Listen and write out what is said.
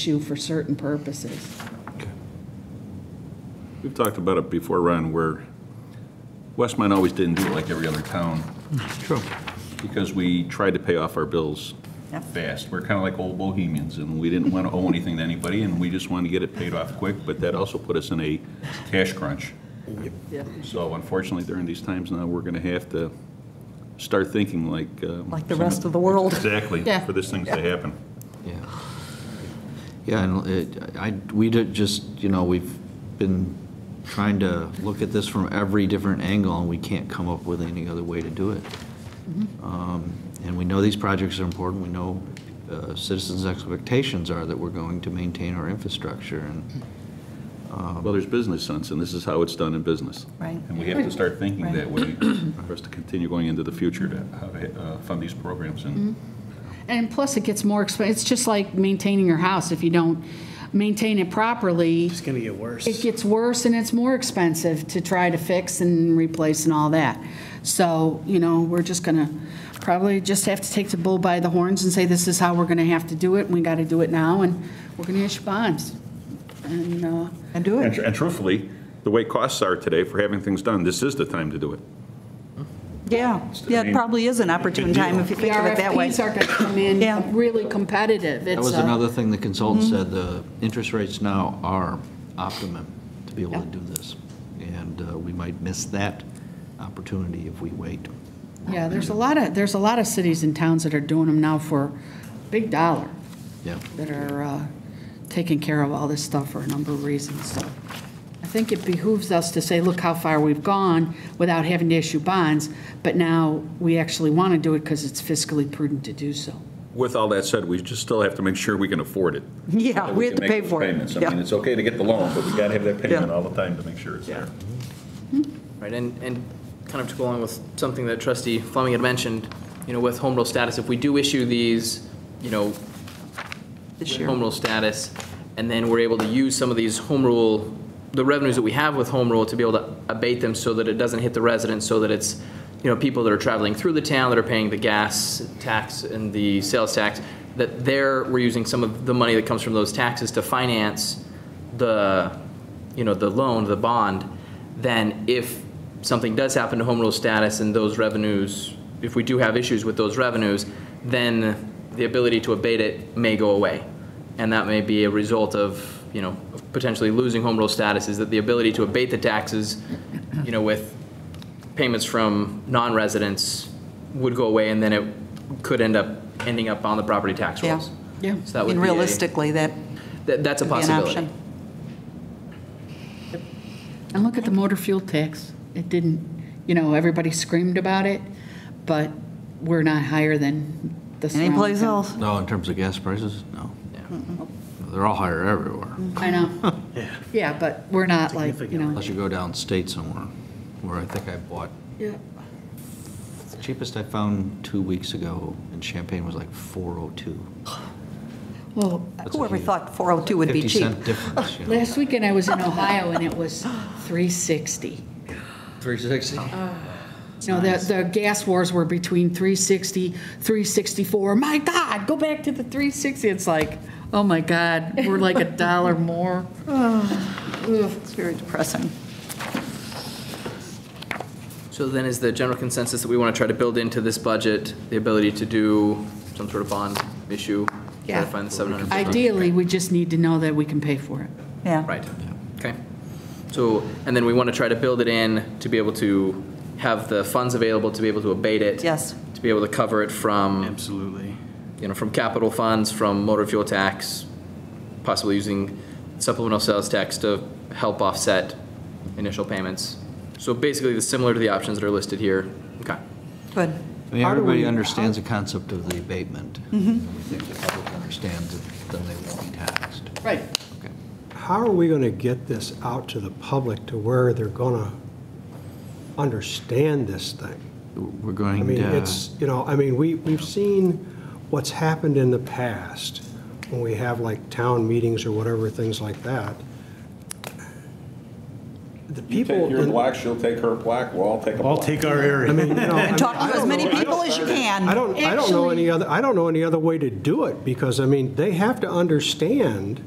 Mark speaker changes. Speaker 1: issue for certain purposes.
Speaker 2: We've talked about it before, Ron, where Westmont always didn't do it like every other town
Speaker 3: True.
Speaker 2: because we tried to pay off our bills
Speaker 1: Yep.
Speaker 2: fast. We're kind of like old bohemians and we didn't want to owe anything to anybody and we just wanted to get it paid off quick, but that also put us in a cash crunch.
Speaker 1: Yeah.
Speaker 2: So unfortunately, during these times now, we're going to have to start thinking like. uh,
Speaker 4: Like the rest of the world.
Speaker 2: Exactly,
Speaker 1: Yeah.
Speaker 2: for these things to happen.
Speaker 3: Yeah. Yeah, and it- I, we did just, you know, we've been trying to look at this from every different angle, and we can't come up with any other way to do it.
Speaker 1: Mm-hmm.
Speaker 3: Um, And we know these projects are important, we know uh, citizens' expectations are that we're going to maintain our infrastructure, and,
Speaker 2: Well, there's business sense and this is how it's done in business.
Speaker 4: Right.
Speaker 2: And we have to start thinking that way for us to continue going into the future to how to uh, fund these programs
Speaker 4: Mm-hmm.
Speaker 2: and
Speaker 1: And plus, it gets more expensive. It's just like maintaining your house. If you don't maintain it properly,
Speaker 5: It's going to get worse.
Speaker 1: it gets worse and it's more expensive to try to fix and replace and all that. So, you know, we're just going to probably just have to take the bull by the horns and say, this is how we're going to have to do it. We got to do it now, and we're going to issue bonds. And, uh,
Speaker 4: And do
Speaker 2: And
Speaker 4: it.
Speaker 2: tr- and truthfully, the way costs are today for having things done, this is the time to do it.
Speaker 4: Yeah. Yeah, it probably is an opportune time if you
Speaker 1: the
Speaker 4: think of it that way.
Speaker 1: RFPs are going to come
Speaker 4: Yeah.
Speaker 1: in really competitive.
Speaker 3: that
Speaker 1: It's uh, mm-hmm.
Speaker 3: was
Speaker 1: a-
Speaker 3: another thing the consultant said, the interest rates now are optimum to be able to
Speaker 1: Yeah.
Speaker 3: do this. And uh, we might miss that opportunity if we wait.
Speaker 1: Yeah, there's a lot of, there's a lot of cities and towns that are doing them now for big dollar,
Speaker 3: Yeah.
Speaker 1: that are uh, taking care of all this stuff for a number of reasons, so. I think it behooves us to say, look how far we've gone without having to issue bonds, but now we actually want to do it because it's fiscally prudent to do so.
Speaker 2: With all that said, we just still have to make sure we can afford it.
Speaker 4: Yeah,
Speaker 2: that
Speaker 4: we have
Speaker 2: can
Speaker 4: to
Speaker 2: make
Speaker 4: pay
Speaker 2: those
Speaker 4: for it.
Speaker 2: payments. I mean,
Speaker 4: Yeah.
Speaker 2: it's okay to get the loan, but we got to have that payment
Speaker 4: Yeah.
Speaker 2: all the time to make sure it's there.
Speaker 6: Right, and, and kind of to go along with something that trustee Fleming had mentioned, you know, with home rule status, if we do issue these, you know,
Speaker 4: This
Speaker 6: with
Speaker 4: year.
Speaker 6: home rule status, and then we're able to use some of these home rule, the revenues that we have with home rule to be able to abate them so that it doesn't hit the residents, so that it's, you know, people that are traveling through the town that are paying the gas tax and the sales tax, that there, we're using some of the money that comes from those taxes to finance the, you know, the loan, the bond, then if something does happen to home rule status and those revenues, if we do have issues with those revenues, then the ability to abate it may go away. And that may be a result of, you know, potentially losing home rule status, is that the ability to abate the taxes, you know, with payments from non-residents would go away, and then it could end up, ending up on the property tax
Speaker 4: Yeah.
Speaker 6: rolls.
Speaker 1: Yeah.
Speaker 6: So that would
Speaker 4: And
Speaker 6: be a-
Speaker 4: realistically, that
Speaker 6: that- That's a
Speaker 4: could be an
Speaker 6: possibility.
Speaker 4: option.
Speaker 1: And look at the motor fuel tax. It didn't, you know, everybody screamed about it, but we're not higher than the surrounding
Speaker 4: Anyplace
Speaker 1: towns.
Speaker 4: else?
Speaker 3: No, in terms of gas prices, no.
Speaker 6: Yeah.
Speaker 3: They're all higher everywhere,
Speaker 4: Mm-hmm.
Speaker 1: I know. Yeah, but we're not like, you know.
Speaker 3: unless you go downstate somewhere, where I think I bought,
Speaker 1: Yeah.
Speaker 3: the cheapest I found two weeks ago in Champagne was like 402.
Speaker 1: Well,
Speaker 3: That's a
Speaker 4: Whoever
Speaker 3: huge-
Speaker 4: thought 402 would be
Speaker 3: 50
Speaker 4: cheap. Oh,
Speaker 3: cent difference, you know.
Speaker 1: Last weekend I was in Ohio and it was 360.
Speaker 3: 360?
Speaker 4: Uh,
Speaker 1: You know, the, the gas wars were between 360, 364. My God, go back to the 360. It's like, oh my God, we're like a dollar more.
Speaker 4: It's very depressing.
Speaker 6: So then is the general consensus that we want to try to build into this budget, the ability to do some sort of bond issue? Try
Speaker 1: Yeah.
Speaker 6: to find the 750?
Speaker 1: Ideally, we just need to know that we can pay for it.
Speaker 4: Yeah.
Speaker 6: Right, okay. So, and then we want to try to build it in to be able to have the funds available to be able to abate it?
Speaker 4: Yes.
Speaker 6: To be able to cover it from,
Speaker 5: Absolutely.
Speaker 6: you know, from capital funds, from motor fuel tax, possibly using supplemental sales tax to help offset initial payments. So basically, it's similar to the options that are listed here. Okay.
Speaker 4: Good.
Speaker 3: I mean,
Speaker 4: How do
Speaker 3: everybody
Speaker 4: we-
Speaker 3: understands the concept of the abatement. Mm-hmm. We think the public understands it, then they won't be taxed.
Speaker 1: Right.
Speaker 3: Okay.
Speaker 7: How are we going to get this out to the public to where they're going to understand this thing?
Speaker 3: We're
Speaker 7: I
Speaker 3: going
Speaker 7: mean,
Speaker 3: to,
Speaker 7: it's, you know, I mean, we, we've seen what's happened in the past when we have like town meetings or whatever, things like that. the
Speaker 2: You
Speaker 7: people.
Speaker 2: take your
Speaker 7: in-
Speaker 2: block, she'll take her block, we'll all take a
Speaker 5: I'll
Speaker 2: block.
Speaker 5: take our area.
Speaker 7: I mean, you know, I mean,
Speaker 4: Talk
Speaker 7: I
Speaker 4: to as
Speaker 7: don't
Speaker 4: many
Speaker 7: know. I
Speaker 4: people
Speaker 7: don't-
Speaker 4: as you can.
Speaker 7: I don't, I don't know
Speaker 1: Actually-
Speaker 7: any other, I don't know any other way to do it, because, I mean, they have to understand